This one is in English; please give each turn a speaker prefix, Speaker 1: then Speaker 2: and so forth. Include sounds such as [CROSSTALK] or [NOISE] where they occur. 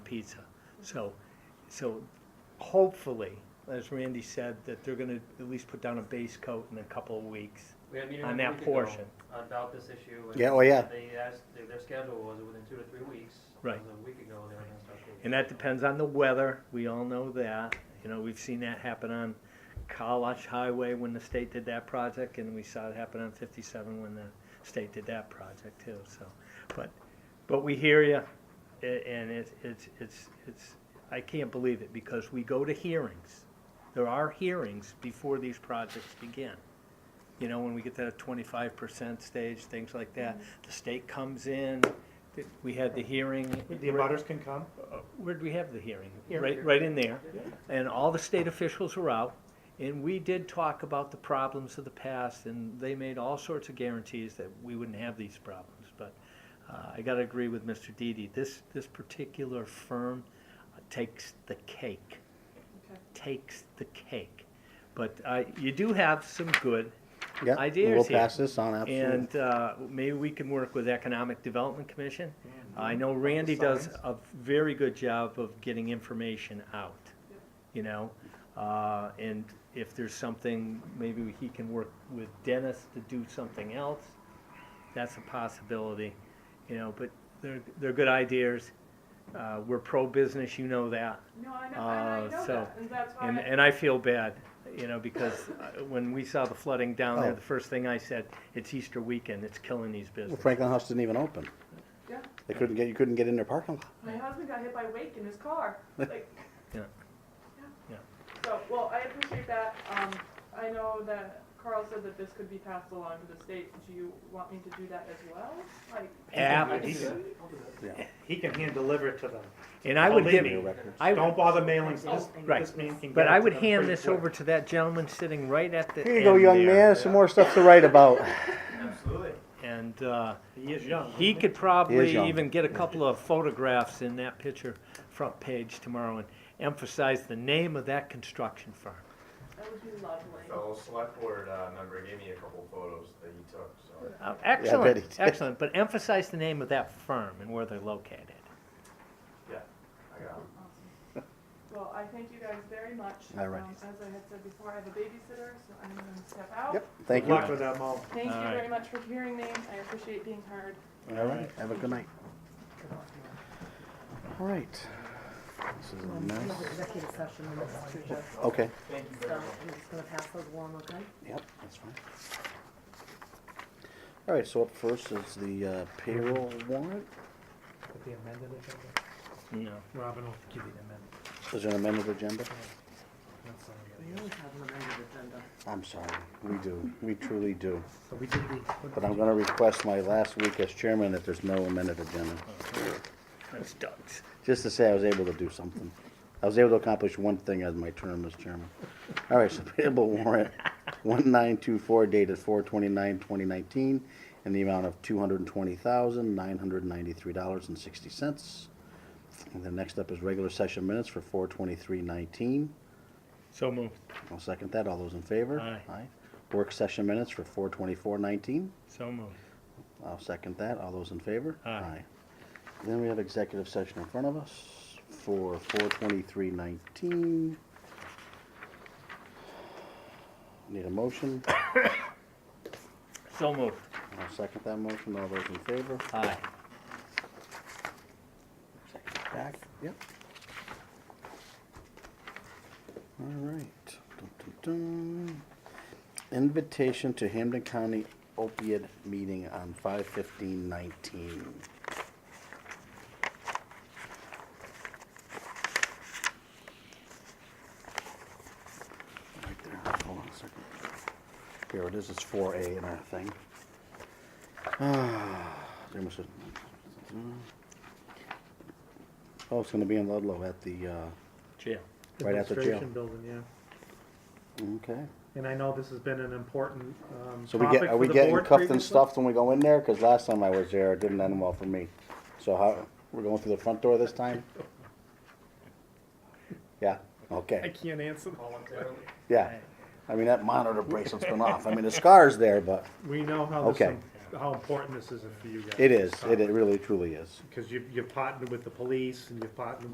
Speaker 1: pizza. So, so hopefully, as Randy said, that they're gonna at least put down a base coat in a couple of weeks.
Speaker 2: We had a meeting
Speaker 1: On
Speaker 2: a
Speaker 1: that
Speaker 2: week ago
Speaker 1: portion.
Speaker 2: About this issue. and
Speaker 3: Yeah, oh, yeah.
Speaker 2: They asked, their, their schedule was within two to three weeks.
Speaker 1: Right.
Speaker 2: It was a week ago, they were gonna start. the-
Speaker 1: And that depends on the weather, we all know that, you know, we've seen that happen on Kalash Highway when the state did that project, and we saw it happen on fifty-seven when the state did that project too, so. But, but we hear you, and it's, it's, it's, it's, I can't believe it, because we go to hearings. There are hearings before these projects begin. You know, when we get to that twenty-five percent stage, things like that, the state comes in, th- we had the hearing.
Speaker 4: The abutters can come.
Speaker 1: Where'd we have the hearing?
Speaker 4: Here.
Speaker 1: Right, right in there.
Speaker 4: Yeah.
Speaker 1: And all the state officials were out. And we did talk about the problems of the past and they made all sorts of guarantees that we wouldn't have these problems. But uh, I gotta agree with Mr. Didi, this, this particular firm takes the cake. Takes the cake. But I, you do have some good
Speaker 3: Yeah,
Speaker 1: ideas
Speaker 3: We'll
Speaker 1: here.
Speaker 3: pass this on, absolutely.
Speaker 1: And uh, maybe we can work with Economic Development Commission.
Speaker 3: Mm-hmm.
Speaker 1: I know Randy does
Speaker 4: signs.
Speaker 1: a very good job of getting information out, you know? Uh, And if there's something, maybe he can work with Dennis to do something else. That's a possibility, you know, but they're, they're good ideas. Uh, We're pro-business, you know that.
Speaker 5: No, I know, I
Speaker 1: Uh,
Speaker 5: know
Speaker 1: so-
Speaker 5: that, and that's why.
Speaker 1: And,
Speaker 5: I-
Speaker 1: and I feel bad, you know, because uh, when we saw the flooding down there,
Speaker 3: Oh.
Speaker 1: the first thing I said, it's Easter weekend, it's killing these
Speaker 3: Well,
Speaker 1: businesses.
Speaker 3: Franklin House didn't even open.
Speaker 5: Yeah.
Speaker 3: They couldn't get, you couldn't get in their parking lot.
Speaker 5: My husband got hit by Wake in his car, like.
Speaker 1: Yeah. Yeah.
Speaker 5: So, well, I appreciate that, um, I know that Carl said that this could be passed along to the state, do you want me to do that as well? Like,
Speaker 1: Abs-
Speaker 4: He can hand deliver it to them.
Speaker 1: And I would
Speaker 4: Believe
Speaker 1: give,
Speaker 4: me,
Speaker 3: records.
Speaker 1: I,
Speaker 4: Don't
Speaker 1: would-
Speaker 4: bother mailings. This,
Speaker 1: Right.
Speaker 4: this man can get
Speaker 1: but
Speaker 4: it
Speaker 1: I
Speaker 4: to
Speaker 1: would
Speaker 4: them
Speaker 1: hand
Speaker 4: pretty
Speaker 1: this
Speaker 4: quick.
Speaker 1: over to that gentleman sitting right at the
Speaker 3: Here you go,
Speaker 1: end
Speaker 3: young
Speaker 1: there.
Speaker 3: man, some more stuff to write
Speaker 4: [LAUGHS]
Speaker 3: about.
Speaker 2: Absolutely.
Speaker 1: And, uh,
Speaker 4: He is young.
Speaker 1: he could
Speaker 3: He is
Speaker 1: probably
Speaker 3: young.
Speaker 1: even get a couple of photographs in that picture front page tomorrow and emphasize the name of that construction firm.
Speaker 5: that would be lovely.
Speaker 6: fellow select board uh, member gave me a couple photos that he took, so.
Speaker 1: Uh,
Speaker 3: he
Speaker 1: Excellent,
Speaker 3: did.
Speaker 1: excellent, but emphasize the name of that firm and where they're located.
Speaker 6: I got
Speaker 5: Awesome. Well, I thank you guys very much.
Speaker 3: All right.
Speaker 5: Um, As I had said before, I have a babysitter, so I'm gonna step out.
Speaker 3: Yep, thank
Speaker 4: Good
Speaker 3: you.
Speaker 4: luck with that mom.
Speaker 5: Thank you
Speaker 1: All right.
Speaker 5: very much for hearing me, I appreciate being heard.
Speaker 3: All right, have a good night. All right. This is a mess.
Speaker 7: Another executive session on this too, Jeff,
Speaker 3: Okay,
Speaker 7: so I'm just gonna pass those along, okay?
Speaker 3: yep, that's fine. All right, so up first is the uh, payroll warrant.
Speaker 4: With the amended agenda.
Speaker 1: No.
Speaker 4: Robin will give you the amendment.
Speaker 3: Is there an amended agenda?
Speaker 4: That's all I
Speaker 7: We
Speaker 4: got.
Speaker 7: always have an amended agenda.
Speaker 3: I'm sorry, we do, we truly do.
Speaker 4: So we did the.
Speaker 3: But I'm gonna request my last week as chairman that there's no amended agenda.
Speaker 1: That's Doug's.
Speaker 3: Just to say I was able to do something. I was able to accomplish one thing as my term as chairman. All right, so [LAUGHS] payable warrant one nine two four dated four twenty-nine, twenty nineteen, in the amount of two hundred and twenty thousand, nine hundred and ninety-three dollars and sixty cents. And then next up is regular session minutes for four twenty-three nineteen.
Speaker 1: So moved.
Speaker 3: I'll second that. All those in favor?
Speaker 1: Aye.
Speaker 3: Aye. Work session minutes for four twenty-four nineteen.
Speaker 1: So moved.
Speaker 3: I'll second that. All those in favor?
Speaker 1: Aye.
Speaker 3: Then we have executive session in front of us for four twenty-three nineteen. Need a motion?
Speaker 1: So moved.
Speaker 3: I'll second that motion. All those in favor?
Speaker 1: Aye.
Speaker 3: Second it Back, yep. All right. Dun, dun, dun. Invitation to Hampden County opiate meeting on five fifteen nineteen. Right there, hold on a second. Here it is, it's four A in our thing. Ah, there must have- Oh, it's gonna be in Ludlow at the, uh,
Speaker 1: Jail.
Speaker 3: Right at the jail.
Speaker 4: Administration building, yeah.
Speaker 3: okay.
Speaker 4: And I know this has been an important, um,
Speaker 3: So we get,
Speaker 4: topic
Speaker 3: are
Speaker 4: for
Speaker 3: we
Speaker 4: the
Speaker 3: getting
Speaker 4: board
Speaker 3: cuffed and
Speaker 4: previously.
Speaker 3: stuffed when we go in there? Cause last time I was there, it didn't end well for me. So how, we're going through the front door this
Speaker 4: [LAUGHS]
Speaker 3: time? Yeah,
Speaker 4: I
Speaker 3: okay,
Speaker 4: can't answer. that.
Speaker 2: Voluntarily.
Speaker 3: yeah. I mean, that monitor bracelet's been off. I mean, the scar's there, but
Speaker 4: We know how this,
Speaker 3: Okay.
Speaker 4: im- how important this is for you guys.
Speaker 3: it is, it it really truly is.
Speaker 4: Because you, you've partnered with the police and you've partnered